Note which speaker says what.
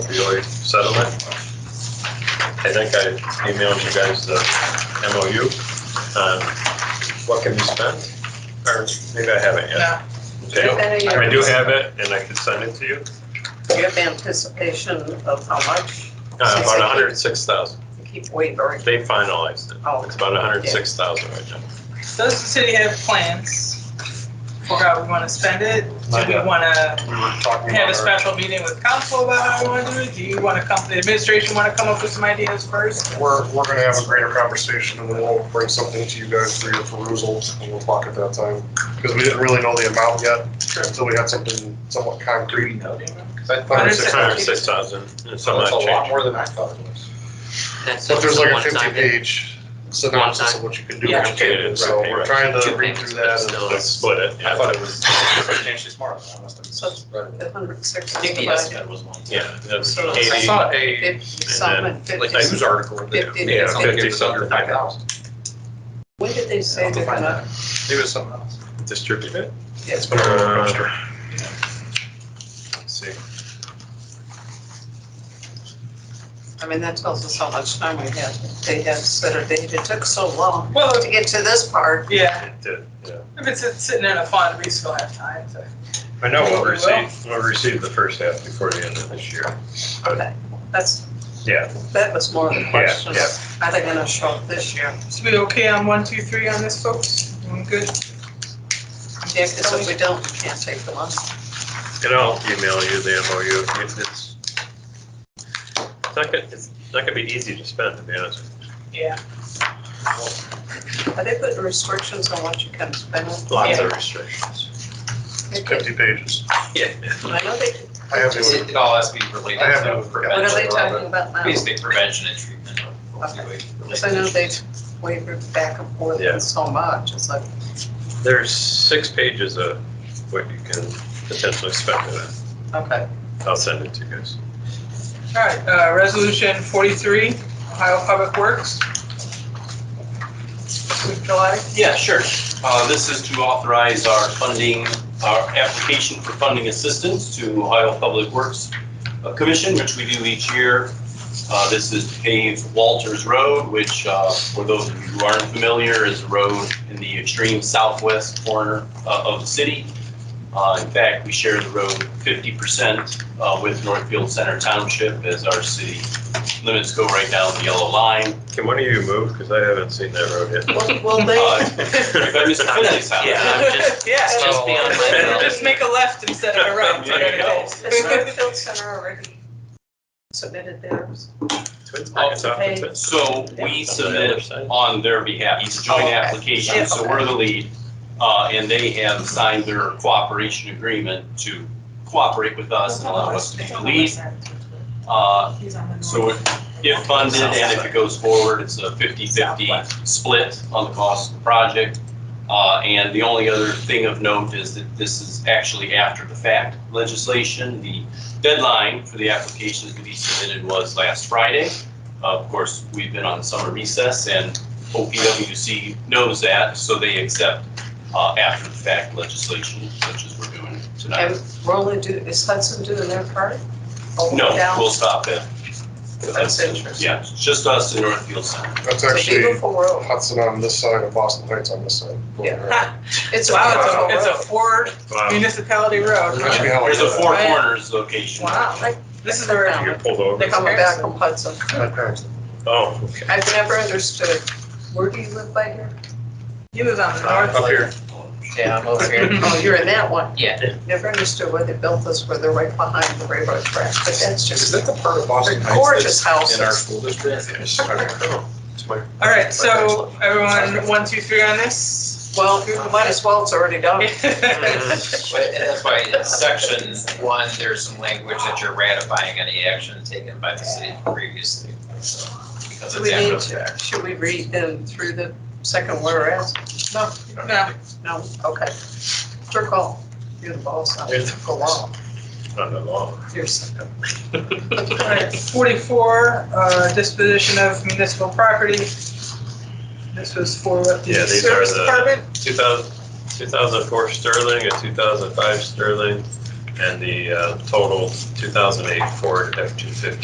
Speaker 1: opioid settlement. I think I emailed you guys the MOU on Um, what can be spent, or maybe I haven't yet.
Speaker 2: Yeah,
Speaker 1: Okay,
Speaker 3: Then
Speaker 1: I
Speaker 3: your-
Speaker 1: do have it, and I can send it to you,
Speaker 3: You have anticipation of how much
Speaker 1: uh, about hundred and six thousand,
Speaker 3: to keep wavering.
Speaker 1: they finalized it,
Speaker 3: Oh.
Speaker 1: it's about hundred and six thousand right now.
Speaker 2: does the city have plans for how we want to spend it? Do
Speaker 1: Not
Speaker 2: we
Speaker 1: yet.
Speaker 2: want to
Speaker 1: We were talking
Speaker 2: have
Speaker 1: about
Speaker 2: a
Speaker 1: our-
Speaker 2: special meeting with council about how we want to do it? Do you want to come, the administration want to come up with some ideas first?
Speaker 4: We're, we're gonna have a greater conversation and then we'll bring something to you guys for your perusal and we'll talk at that time. Because we didn't really know the amount yet until we had something somewhat concrete.
Speaker 1: Hundred
Speaker 2: Hundred
Speaker 1: and six
Speaker 2: six-
Speaker 1: hundred and six thousand, and some
Speaker 5: That's a
Speaker 1: odd
Speaker 5: lot
Speaker 1: change.
Speaker 5: more than I thought it was.
Speaker 6: That's
Speaker 4: But there's
Speaker 6: the
Speaker 4: like a
Speaker 6: one-time
Speaker 4: fifty
Speaker 6: thing.
Speaker 4: page synopsis of what you can do.
Speaker 2: Yeah.
Speaker 4: with it. So we're trying to read through that. and-
Speaker 6: Still,
Speaker 1: Let's
Speaker 6: it's-
Speaker 1: split it,
Speaker 5: I
Speaker 1: yeah,
Speaker 5: thought it was substantially smaller than I must
Speaker 3: So
Speaker 5: have read it.
Speaker 3: the hundred sixty.
Speaker 6: I think the estimate was one.
Speaker 1: yeah, that's
Speaker 3: So
Speaker 1: eighty.
Speaker 3: it's
Speaker 5: I saw a,
Speaker 3: Fifty some and
Speaker 5: like
Speaker 3: fifty.
Speaker 5: a news article. that-
Speaker 3: Fifty.
Speaker 5: Yeah,
Speaker 1: Yeah,
Speaker 5: something
Speaker 1: 50
Speaker 5: was under
Speaker 1: something.
Speaker 5: five thousand.
Speaker 3: When did they say they're gonna?
Speaker 5: Maybe it was something else.
Speaker 1: distribute it?
Speaker 3: Yes.
Speaker 1: Uh, Let's see.
Speaker 3: I mean, that tells us how much time we had. They had Saturday, it took so long
Speaker 2: Well,
Speaker 3: to get to this part.
Speaker 2: yeah,
Speaker 1: It did, yeah.
Speaker 2: if it's sitting in a fund, we still have time to.
Speaker 1: I know we'll
Speaker 2: Well-
Speaker 1: receive, we'll receive the first half before the end of this year.
Speaker 3: Okay, that's,
Speaker 1: Yeah,
Speaker 3: that was more of the question.
Speaker 1: yeah.
Speaker 3: Are they gonna show up this year?
Speaker 2: So we okay on one, two, three on this, folks? Everyone good?
Speaker 3: Yeah, because if we don't, we can't take the money.
Speaker 1: and I'll email you the MOU. It's, it's it's not gonna, it's not gonna be easy to spend, to be honest.
Speaker 2: Yeah.
Speaker 3: Are they putting restrictions on what you can spend?
Speaker 1: Lots
Speaker 2: Yeah.
Speaker 1: of restrictions.
Speaker 3: They did.
Speaker 4: Fifty pages.
Speaker 1: Yeah.
Speaker 3: I know they, did.
Speaker 4: I have
Speaker 5: It
Speaker 4: to,
Speaker 5: it all has to be related
Speaker 4: I have
Speaker 5: to
Speaker 4: no-
Speaker 3: what are they
Speaker 5: prevention.
Speaker 3: talking about now?
Speaker 5: Basically prevention and treatment of
Speaker 3: Okay.
Speaker 5: opioid.
Speaker 3: Because I know they've wavered back and forth
Speaker 1: Yeah.
Speaker 3: on so much, it's like,
Speaker 1: There's six pages of what you can potentially spend with it.
Speaker 3: okay.
Speaker 1: I'll send it to you guys.
Speaker 2: All right, uh, resolution forty-three, Ohio Public Works. July.
Speaker 7: Yeah, sure. Uh, This is to authorize our funding, our application for funding assistance to Ohio Public Works uh, Commission, which we do each year. Uh, This is to pave Walters Road, which uh, for those of you who aren't familiar, is a road in the extreme southwest corner uh, of the city. Uh, In fact, we share the road 50% uh, with Northfield Center Township as our city limits go right down the yellow line.
Speaker 1: Can one of you move? Because I haven't seen that road yet.
Speaker 3: Well, Well, they,
Speaker 7: Uh,
Speaker 1: If
Speaker 7: If I miss Finley's house.
Speaker 6: Yeah, I'm just,
Speaker 2: Yeah,
Speaker 6: it's just beyond my.
Speaker 1: Oh.
Speaker 2: just make a left instead of a right.
Speaker 7: There you go.
Speaker 3: the Northfield Center already submitted theirs.
Speaker 1: Twins, I guess, off the twins.
Speaker 7: So we
Speaker 1: On the other
Speaker 7: submit
Speaker 1: side.
Speaker 7: on their behalf, it's a
Speaker 3: Oh,
Speaker 7: joint
Speaker 3: okay.
Speaker 7: application, so we're the lead. Uh, and they have signed their cooperation agreement to cooperate with us and allow us to be the lead. Uh, so if- if funded and if it goes forward, it's a 50-50 split on the cost of the project. Uh, and the only other thing of note is that this is actually after the fact legislation. The deadline for the applications to be submitted was last Friday. Uh, Of course, we've been on summer recess and OPWC knows that, so they accept uh, after the fact legislation such as we're doing tonight.
Speaker 3: And we're only do, is Hudson doing their part? Oh,
Speaker 7: No,
Speaker 3: down?
Speaker 7: we'll stop it.
Speaker 3: That's interesting.
Speaker 7: Yeah, it's just us in Northfield Center.
Speaker 4: that's
Speaker 3: It's a
Speaker 4: actually
Speaker 3: beautiful road.
Speaker 4: Hudson on this side and Boston Heights on this side.
Speaker 3: Yeah. It's a
Speaker 2: Wow, it's a,
Speaker 3: beautiful
Speaker 2: it's a Ford
Speaker 1: Wow,
Speaker 2: municipality road.
Speaker 4: That should be how I
Speaker 7: There's a
Speaker 4: do
Speaker 7: Four
Speaker 2: Right.
Speaker 7: Corners location.
Speaker 2: Wow, like, this is our,
Speaker 1: you pulled over.
Speaker 3: road. Coming back from Hudson.
Speaker 4: it. My parents.
Speaker 1: Oh,
Speaker 3: I've never understood, where do you live by here?
Speaker 2: he lives on the north.
Speaker 5: Up here.
Speaker 6: Yeah, I'm over here.
Speaker 3: Oh, you're in that one.
Speaker 6: Yeah.
Speaker 3: Never understood why they built this, where they're right behind the railroad track, but that's
Speaker 5: Is
Speaker 3: just,
Speaker 5: that the part of Boston Heights?
Speaker 3: Gorgeous
Speaker 5: that's In our
Speaker 3: houses.
Speaker 5: school district? Oh,
Speaker 2: All right, so everyone, one, two, three on this?
Speaker 3: well, you might as well, it's already done.
Speaker 1: Mm-hmm.
Speaker 8: But and that's why in section one, there's some language that you're ratifying any action taken by the city previously. so, Because it's
Speaker 3: Do we
Speaker 8: after
Speaker 3: need
Speaker 8: the
Speaker 3: to,
Speaker 8: fact.
Speaker 3: should we read them through the second whereas? No,
Speaker 2: No.
Speaker 3: no, okay. It's your call. You're the boss, I'm the law.
Speaker 1: not that long.
Speaker 3: You're second.
Speaker 2: Alright, Forty-four, uh, disposition of municipal property. This was for what, the
Speaker 1: Yeah, these are
Speaker 2: service
Speaker 1: the-
Speaker 2: department?
Speaker 1: 2000 2004 Sterling, a 2005 Sterling, and the uh, total 2008 Ford F-250